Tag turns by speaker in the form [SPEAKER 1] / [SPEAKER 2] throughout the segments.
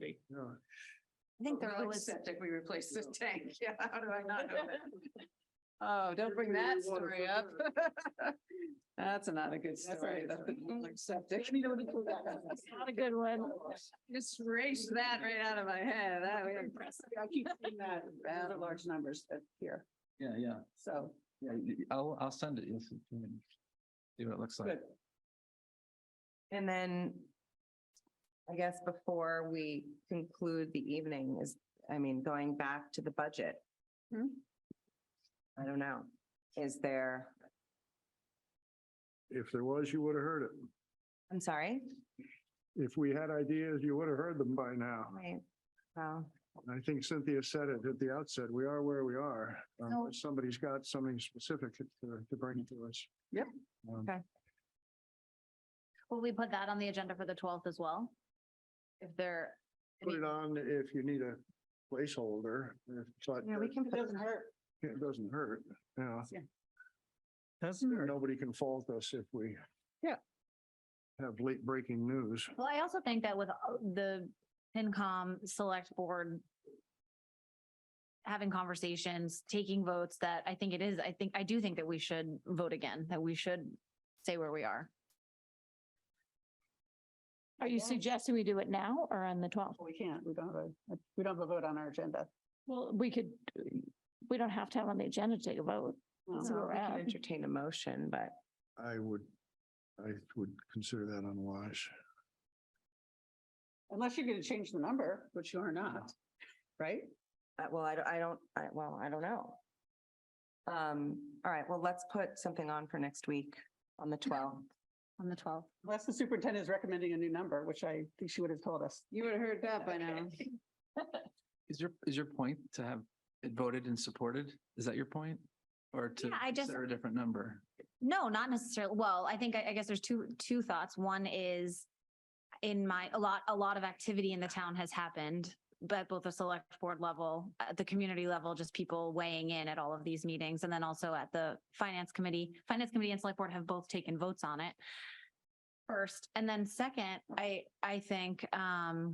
[SPEAKER 1] right.
[SPEAKER 2] Yeah.
[SPEAKER 3] I think they're
[SPEAKER 1] Well,
[SPEAKER 3] always,
[SPEAKER 1] Septic, we replaced the tank. Yeah, how do I not know? that? Oh,
[SPEAKER 2] Sure
[SPEAKER 1] don't bring
[SPEAKER 2] do
[SPEAKER 1] that
[SPEAKER 2] the water
[SPEAKER 1] story
[SPEAKER 2] for
[SPEAKER 1] up.
[SPEAKER 2] sure.
[SPEAKER 1] That's not a good story.
[SPEAKER 2] not a
[SPEAKER 1] the Septic.
[SPEAKER 3] not a good one.
[SPEAKER 1] Just erase that right out of my head. That was
[SPEAKER 2] I keep seeing that.
[SPEAKER 1] Those are large
[SPEAKER 2] numbers here,
[SPEAKER 4] Yeah, yeah,
[SPEAKER 2] so.
[SPEAKER 4] yeah, y- y- I'll, I'll send it, yes, see what it looks like.
[SPEAKER 2] Good.
[SPEAKER 5] And then I guess before we conclude the evening is, I mean, going back to the budget.
[SPEAKER 1] Hmm.
[SPEAKER 5] I don't know. Is there,
[SPEAKER 2] If there was, you would have heard it.
[SPEAKER 5] I'm sorry,
[SPEAKER 2] If we had ideas, you would have heard them by now.
[SPEAKER 5] right? Well,
[SPEAKER 2] I think Cynthia said it at the outset, we are where we are. Um,
[SPEAKER 3] No.
[SPEAKER 2] if Somebody's got something specific to, to bring to us.
[SPEAKER 1] Yep.
[SPEAKER 2] Um,
[SPEAKER 3] Will we put that on the agenda for the twelfth as well? If they're,
[SPEAKER 2] Put it on if you need a placeholder, if- but
[SPEAKER 5] yeah, we can. put-
[SPEAKER 2] it doesn't hurt, you know.
[SPEAKER 4] That's
[SPEAKER 2] Nobody can fault us if we.
[SPEAKER 1] Hmm. Yeah.
[SPEAKER 2] Have late breaking news.
[SPEAKER 3] well, I also think that with uh, the PINCOM Select Board having conversations, taking votes, that I think it is, I think, I do think that we should vote again, that we should say where we are.
[SPEAKER 6] Are you suggesting we do it now or on the twelfth?
[SPEAKER 1] We can't, we don't have a, we don't have a vote on our agenda.
[SPEAKER 6] Well, we could, we don't have to have on the agenda to take a vote.
[SPEAKER 5] No,
[SPEAKER 3] Oh,
[SPEAKER 6] It's
[SPEAKER 5] we can
[SPEAKER 6] around.
[SPEAKER 5] Entertain a motion, but
[SPEAKER 2] I would, I would consider that unwise.
[SPEAKER 1] Unless you're gonna change the number, which you are not, right?
[SPEAKER 5] Uh, well, I don't, I don't, I, well, I don't know. Um, all right, well, let's put something on for next week on the twelfth.
[SPEAKER 3] On the twelfth.
[SPEAKER 7] Unless the superintendent is recommending a new number, which I think she would have told us.
[SPEAKER 1] You would have heard that by now.
[SPEAKER 4] Is your, is your point to have it voted and supported? Is that your point? Or to
[SPEAKER 3] Yeah, I just-
[SPEAKER 4] consider a different number?
[SPEAKER 3] No, not necessarily. Well, I think, I I guess there's two, two thoughts. One is in my, a lot, a lot of activity in the town has happened, but both the select board level, at the community level, just people weighing in at all of these meetings. And then also at the finance committee, finance committee and select board have both taken votes on it first. And then second, I, I think, um,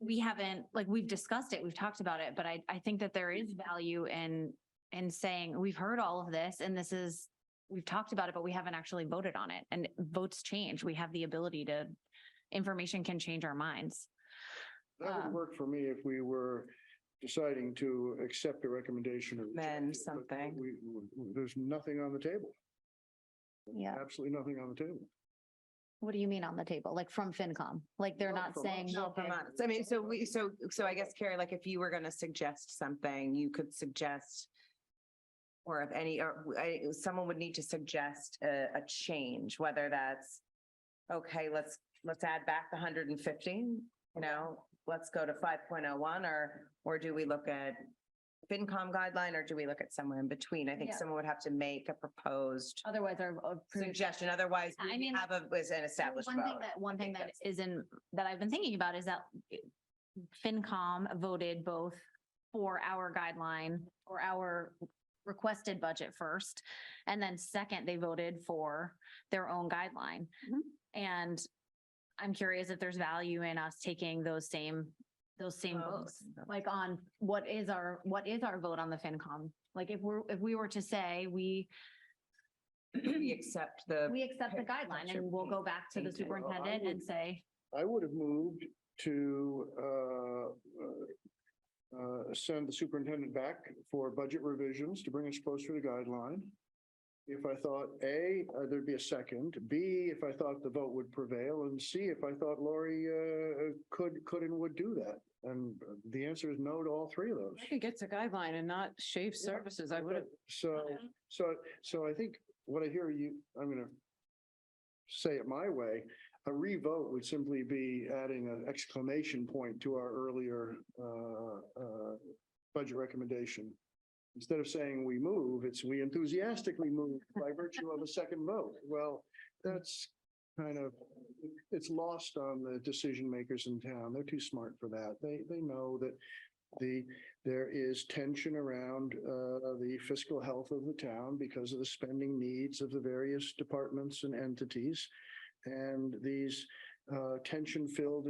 [SPEAKER 3] we haven't, like, we've discussed it, we've talked about it, but I, I think that there is value in and saying, we've heard all of this and this is, we've talked about it, but we haven't actually voted on it. And votes change. We have the ability to, information can change our minds.
[SPEAKER 2] That
[SPEAKER 3] Um,
[SPEAKER 2] would work for me if we were deciding to accept a recommendation or. reject
[SPEAKER 5] Amend
[SPEAKER 2] it, but
[SPEAKER 5] something.
[SPEAKER 2] We, we- there's nothing on the table,
[SPEAKER 3] Yeah.
[SPEAKER 2] absolutely nothing on the table.
[SPEAKER 3] What do you mean on the table? Like from FinCom? Like they're
[SPEAKER 2] No,
[SPEAKER 3] not
[SPEAKER 2] from
[SPEAKER 3] saying.
[SPEAKER 2] us.
[SPEAKER 5] No,
[SPEAKER 3] okay,
[SPEAKER 5] from us. I mean, so we, so, so I guess Carrie, like if you were gonna suggest something, you could suggest or if any, or I, someone would need to suggest a, a change, whether that's okay, let's, let's add back the hundred and fifty, you know, let's go to five point oh one or, or do we look at FinCom guideline or do we look at somewhere in between? I think
[SPEAKER 3] Yeah.
[SPEAKER 5] someone would have to make a proposed
[SPEAKER 3] Otherwise our. our previous-
[SPEAKER 5] suggestion. Otherwise,
[SPEAKER 3] I
[SPEAKER 5] we
[SPEAKER 3] mean,
[SPEAKER 5] have a, was an
[SPEAKER 3] Well,
[SPEAKER 5] established
[SPEAKER 3] One thing
[SPEAKER 5] vote.
[SPEAKER 3] that, one thing
[SPEAKER 5] think
[SPEAKER 3] that isn't, that I've been thinking about is that FinCom voted both for our guideline or our requested budget first. And then second, they voted for their own guideline.
[SPEAKER 1] Mhm.
[SPEAKER 3] And I'm curious if there's value in us taking those same, those same
[SPEAKER 5] Oh,
[SPEAKER 3] votes,
[SPEAKER 5] okay.
[SPEAKER 3] like on what is our, what is our vote on the FinCom? Like if we're, if we were to say we,
[SPEAKER 5] We accept the
[SPEAKER 3] we accept the guideline and we'll go back to the
[SPEAKER 5] Okay.
[SPEAKER 2] Well, I
[SPEAKER 3] superintendent and
[SPEAKER 2] would-
[SPEAKER 3] say.
[SPEAKER 2] I would have moved to, uh, uh, send the superintendent back for budget revisions to bring us closer to the guideline. If I thought, A, uh, there'd be a second, B, if I thought the vote would prevail, and C, if I thought Lori, uh, could, could and would do that. And uh, the answer is no to all three of those.
[SPEAKER 1] I could get to guideline and not shave services. I would have
[SPEAKER 2] So, so, so I think what I hear you, I'm gonna say it my way, a revote would simply be adding an exclamation point to our earlier, uh, uh, budget recommendation. Instead of saying we move, it's we enthusiastically move by virtue of a second vote. Well, that's kind of, it's lost on the decision makers in town. They're too smart for that. They, they know that the, there is tension around uh, the fiscal health of the town because of the spending needs of the various departments and entities. And these uh, tension-filled